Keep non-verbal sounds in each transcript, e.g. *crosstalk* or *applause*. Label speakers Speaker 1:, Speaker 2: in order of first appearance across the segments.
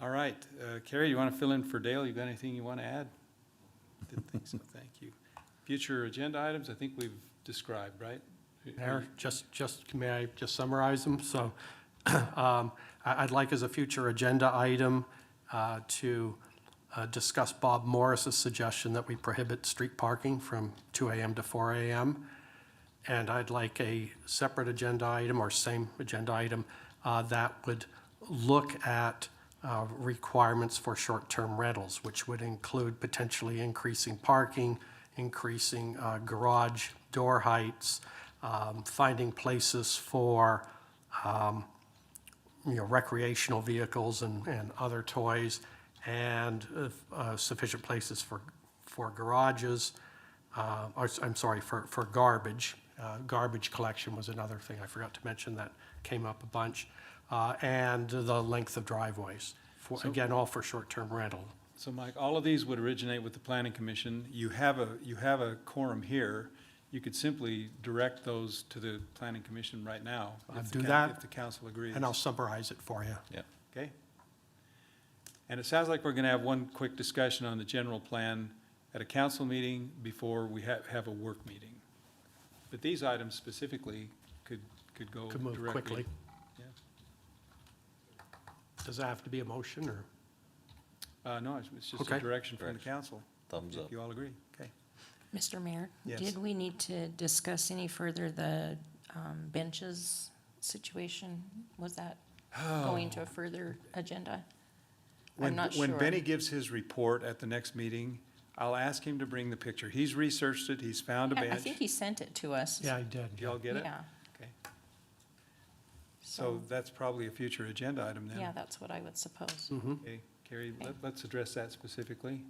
Speaker 1: All right, uh, Carrie, you want to fill in for Dale? You got anything you want to add? Didn't think so, thank you. Future agenda items, I think we've described, right?
Speaker 2: Mayor, just, just, may I just summarize them? So *clears throat* um, I- I'd like as a future agenda item uh, to uh, discuss Bob Morris's suggestion that we prohibit street parking from 2 AM to 4 AM. And I'd like a separate agenda item or same agenda item uh, that would look at uh, requirements for short-term rentals, which would include potentially increasing parking, increasing uh, garage door heights, um, finding places for, um, you know, recreational vehicles and, and other toys, and uh, sufficient places for, for garages, uh, or, s- I'm sorry, for, for garbage. Uh, Garbage collection was another thing I forgot to mention that came up a bunch, uh, and the length of driveways. For, again, all for short-term rental.
Speaker 1: So Mike, all of these would originate with the planning commission. You have a, you have a quorum here. You could simply direct those to the planning commission right now. if
Speaker 2: I'll
Speaker 1: the
Speaker 2: do
Speaker 1: coun-
Speaker 2: that,
Speaker 1: If the council agrees.
Speaker 2: And I'll summarize it for you.
Speaker 1: Yeah. Okay. And it sounds like we're gonna have one quick discussion on the general plan at a council meeting before we have, have a work meeting. But these items specifically could, could go
Speaker 2: Could
Speaker 1: directly.
Speaker 2: move quickly.
Speaker 1: Yeah.
Speaker 2: Does that have to be a motion, or?
Speaker 1: Uh, no, it's- it's just a
Speaker 2: Okay.
Speaker 1: direction from the
Speaker 3: Direction.
Speaker 1: council.
Speaker 3: Thumbs
Speaker 1: If
Speaker 3: up.
Speaker 1: You all agree, okay.
Speaker 4: Mr. Mayor?
Speaker 1: Yes.
Speaker 4: Did we need to discuss any further the um, benches situation? Was that going to a further agenda?
Speaker 1: Oh, When-
Speaker 4: I'm not sure.
Speaker 1: When Benny gives his report at the next meeting, I'll ask him to bring the picture. He's researched it, he's found a
Speaker 4: I I think
Speaker 1: bench.
Speaker 4: he sent it to us.
Speaker 2: Yeah, I did.
Speaker 1: Do y'all get it?
Speaker 4: Yeah,
Speaker 1: Okay. So
Speaker 4: So-
Speaker 1: that's probably a future agenda item then.
Speaker 4: yeah, that's what I would suppose.
Speaker 1: Okay, Carrie, let, let's address that specifically.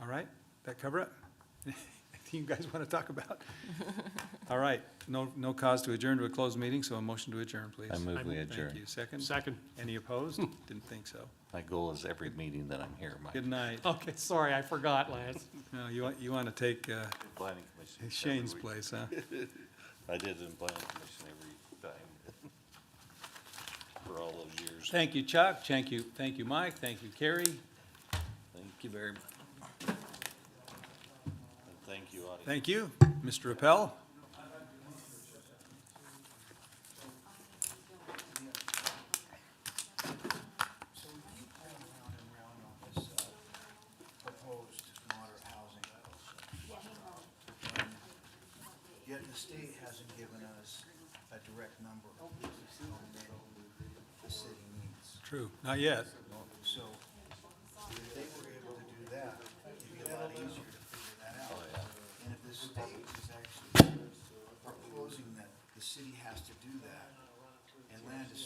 Speaker 1: All right, that cover it? *laughs* Anything you guys want to talk about? All right, no, no cause to adjourn to a closed meeting, so a motion to adjourn, please.
Speaker 3: I move we
Speaker 1: Thank you.
Speaker 3: adjourn.
Speaker 1: Second?
Speaker 2: Second.
Speaker 1: Any opposed? Didn't think so.
Speaker 3: My goal is every meeting that I'm here, Mike.
Speaker 1: Good night.
Speaker 2: Okay, sorry, I forgot, Lance.
Speaker 1: No, you want, you want to take uh,
Speaker 3: Planning commission.
Speaker 1: Shane's
Speaker 3: every week.
Speaker 1: place, huh?
Speaker 3: I did it in planning commission every time *laughs* for all those years.
Speaker 1: Thank you, Chuck. Thank you, thank you, Mike. Thank you, Carrie.
Speaker 3: Thank you very much. And thank you, audience.
Speaker 1: Thank you, Mr. Appel.
Speaker 5: So we keep going round and round on this uh, proposed moderate housing. And Yet the state hasn't given us a direct number of what the city needs.
Speaker 1: True, not yet.
Speaker 5: So if they were able to do that, it'd be a lot easier to figure that out. And if the state is actually proposing that the city has to do that, and land is